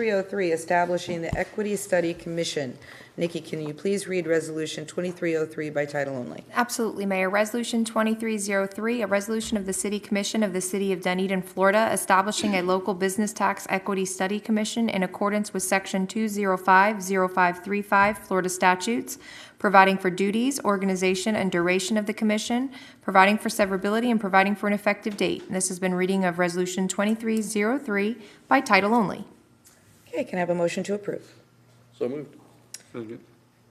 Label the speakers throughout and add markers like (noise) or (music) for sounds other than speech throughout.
Speaker 1: 2303, establishing the Equity Study Commission. Nikki, can you please read Resolution 2303 by title only?
Speaker 2: Absolutely, Mayor. Resolution 2303, a resolution of the City Commission of the City of Dunedin, Florida, establishing a local business tax equity study commission in accordance with Section 2050535 Florida statutes, providing for duties, organization, and duration of the commission, providing for severability, and providing for an effective date. And This has been reading of Resolution 2303 by title only.
Speaker 1: Okay, can I have a motion to approve?
Speaker 3: So moved.
Speaker 4: Second.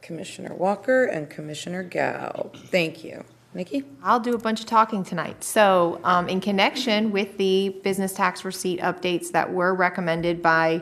Speaker 1: Commissioner Walker and Commissioner Gao. Thank you. Nikki?
Speaker 2: I'll do a bunch of talking tonight. So, um, in connection with the business tax receipt updates that were recommended by,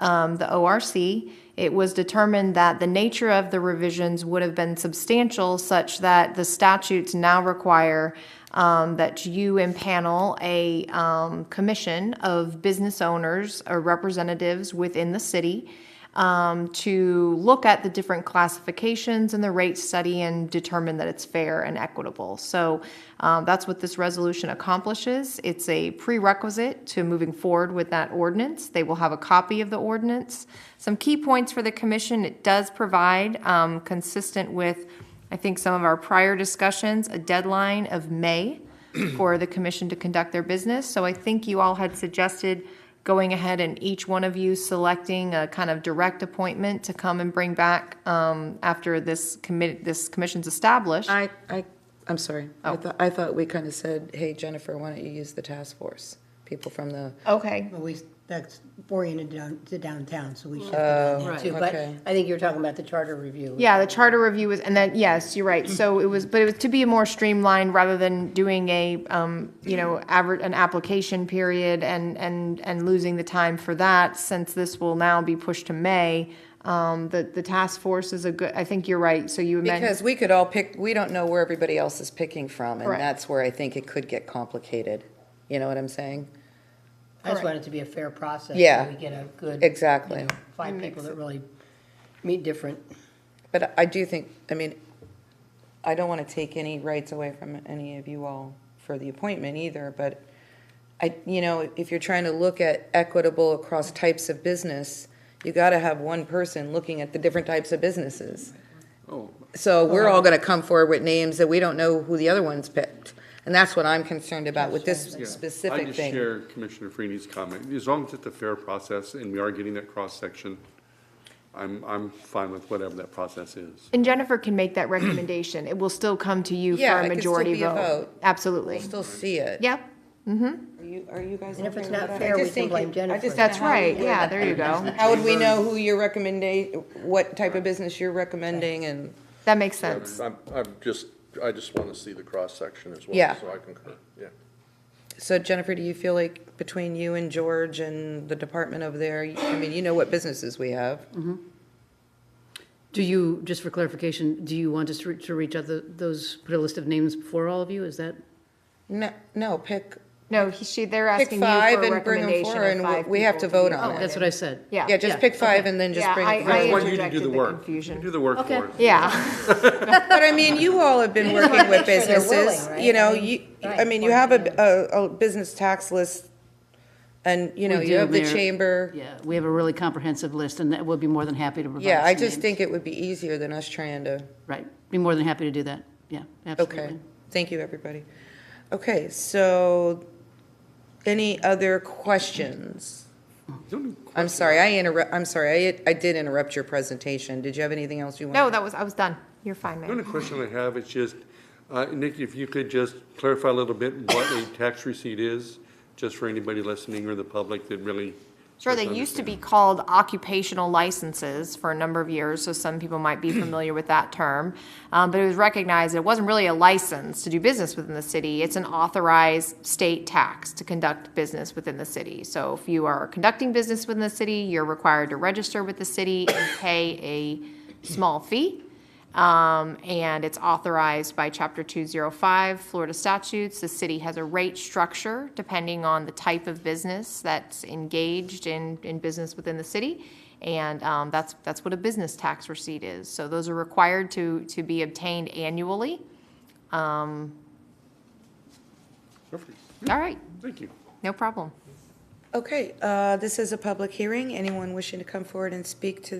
Speaker 2: um, the ORC, it was determined that the nature of the revisions would have been substantial such that the statutes now require, um, that you impanel a, um, commission of business owners or representatives within the city um, to look at the different classifications and the rate study and determine that it's fair and equitable. So um, that's what this resolution accomplishes. It's a prerequisite to moving forward with that ordinance. They will have a copy of the ordinance. Some key points for the commission, it does provide, um, consistent with, I think, some of our prior discussions, a deadline of May (clears throat) for the commission to conduct their business. So I think you all had suggested going ahead and each one of you selecting a kind of direct appointment to come and bring back um, after this commit, this commission's established.
Speaker 1: I, I, I'm sorry. I thought, I thought we kind of said, hey, Jennifer, why don't you use the task force? People from the,
Speaker 2: Okay,
Speaker 5: Well, we, that's oriented down to downtown, so we should put that in too. But
Speaker 1: Oh, okay.
Speaker 5: I think you were talking about the charter review.
Speaker 2: yeah, the charter review was, and then, yes, you're right. So it was, but it was to be more streamlined rather than doing a, um, you know, average, an application period and, and, and losing the time for that, since this will now be pushed to May. Um, The, the task force is a good, I think you're right, so you amended.
Speaker 1: because we could all pick, we don't know where everybody else is picking from, and
Speaker 2: Correct.
Speaker 1: that's where I think it could get complicated. You know what I'm saying?
Speaker 5: I just want it to be a fair process. so
Speaker 1: Yeah.
Speaker 5: We get a good.
Speaker 1: Exactly.
Speaker 5: you know, Find people that really meet different.
Speaker 1: But I do think, I mean, I don't want to take any rights away from any of you all for the appointment either, but I, you know, if you're trying to look at equitable across types of business, you got to have one person looking at the different types of businesses.
Speaker 4: Oh,
Speaker 1: So we're all going to come forward with names that we don't know who the other ones picked. And that's what I'm concerned about with this
Speaker 4: yeah. I
Speaker 1: specific
Speaker 4: just
Speaker 1: thing.
Speaker 4: share Commissioner Freeney's comment. As long as it's a fair process and we are getting that cross-section, I'm, I'm fine with whatever that process is.
Speaker 2: And Jennifer can make that recommendation. It will still come to you
Speaker 1: Yeah,
Speaker 2: for
Speaker 1: it
Speaker 2: a
Speaker 1: could still
Speaker 2: majority
Speaker 1: be a
Speaker 2: vote.
Speaker 1: vote.
Speaker 2: Absolutely.
Speaker 1: Still see it.
Speaker 2: Yep,
Speaker 1: Are you, are you guys?
Speaker 5: And if
Speaker 1: okay
Speaker 5: it's
Speaker 1: with
Speaker 5: not
Speaker 1: that?
Speaker 5: fair,
Speaker 1: I
Speaker 5: we
Speaker 1: just
Speaker 5: can
Speaker 1: think
Speaker 5: blame
Speaker 1: it- I just don't
Speaker 5: Jennifer.
Speaker 2: that's
Speaker 1: know how we
Speaker 2: right.
Speaker 1: do
Speaker 2: Yeah,
Speaker 1: that.
Speaker 2: there you go.
Speaker 1: How would we
Speaker 6: um,
Speaker 1: know who your recommendation, what type of business you're recommending and,
Speaker 2: That makes sense.
Speaker 3: I'm, I'm just, I just want to see the cross-section as well.
Speaker 1: Yeah.
Speaker 3: So I concur, yeah.
Speaker 1: so Jennifer, do you feel like between you and George and the department over there, I mean, you know what businesses we have?
Speaker 6: Mm-hmm. Do you, just for clarification, do you want us to re- to reach out the- those, put a list of names before all of you? Is that?
Speaker 1: No, no, pick,
Speaker 2: No, he- she, they're
Speaker 1: pick
Speaker 2: asking you for
Speaker 1: five and
Speaker 2: a
Speaker 1: bring them
Speaker 2: recommendation
Speaker 1: forward and
Speaker 2: of
Speaker 1: we-
Speaker 2: five
Speaker 1: we have to
Speaker 2: people
Speaker 1: vote
Speaker 2: be
Speaker 1: on it.
Speaker 6: Oh, That's what I said.
Speaker 2: Yeah.
Speaker 1: Yeah, just pick five and then just
Speaker 2: Yeah,
Speaker 1: bring.
Speaker 2: I-
Speaker 1: it
Speaker 2: I
Speaker 4: I
Speaker 1: forward.
Speaker 5: (laughs)
Speaker 4: want you to do
Speaker 2: interjected
Speaker 4: the
Speaker 2: the
Speaker 4: work.
Speaker 2: confusion.
Speaker 4: You do the work for us.
Speaker 2: Yeah, (laughs)
Speaker 1: But I mean, you all have been working with
Speaker 5: make sure they're willing,
Speaker 1: businesses,
Speaker 5: right?
Speaker 1: you know,
Speaker 5: I mean,
Speaker 1: you, I
Speaker 5: right,
Speaker 1: mean, you
Speaker 5: or-
Speaker 1: have a, a, a business tax list and, you know,
Speaker 6: We
Speaker 1: you
Speaker 6: do,
Speaker 1: have the
Speaker 6: Mayor.
Speaker 1: chamber.
Speaker 6: Yeah, we have a really comprehensive list, and that, we'll be more than happy to provide
Speaker 1: Yeah, I
Speaker 6: some
Speaker 1: just
Speaker 6: names.
Speaker 1: think it would be easier than us trying to.
Speaker 6: Right, be more than happy to do that. Yeah,
Speaker 1: Okay,
Speaker 6: absolutely.
Speaker 1: thank you, everybody. Okay, so any other questions? I'm sorry, I interrupt, I'm sorry, I, I did interrupt your presentation. Did you have anything else you wanted?
Speaker 2: no, that was, I was done. You're fine,
Speaker 4: The
Speaker 2: Mayor.
Speaker 4: only question I have is just, uh, Nick, if you could just clarify a little bit what a tax receipt is, just for anybody listening or the public that really.
Speaker 2: Sure, they
Speaker 4: doesn't
Speaker 2: used to
Speaker 4: understand.
Speaker 2: be called occupational licenses for a number of years, so some people might be familiar with that term. Um, but it was recognized that it wasn't really a license to do business within the city, it's an authorized state tax to conduct business within the city. So if you are conducting business within the city, you're required to register with the city and pay a small fee. Um, and it's authorized by Chapter 205 Florida statutes. The city has a rate structure depending on the type of business that's engaged in, in business within the city. And um, that's, that's what a business tax receipt is. So those are required to, to be obtained annually. Um,
Speaker 4: Perfect.
Speaker 2: All right,
Speaker 4: Thank you.
Speaker 2: no problem.
Speaker 1: Okay, uh, this is a public hearing. Anyone wishing to come forward and speak to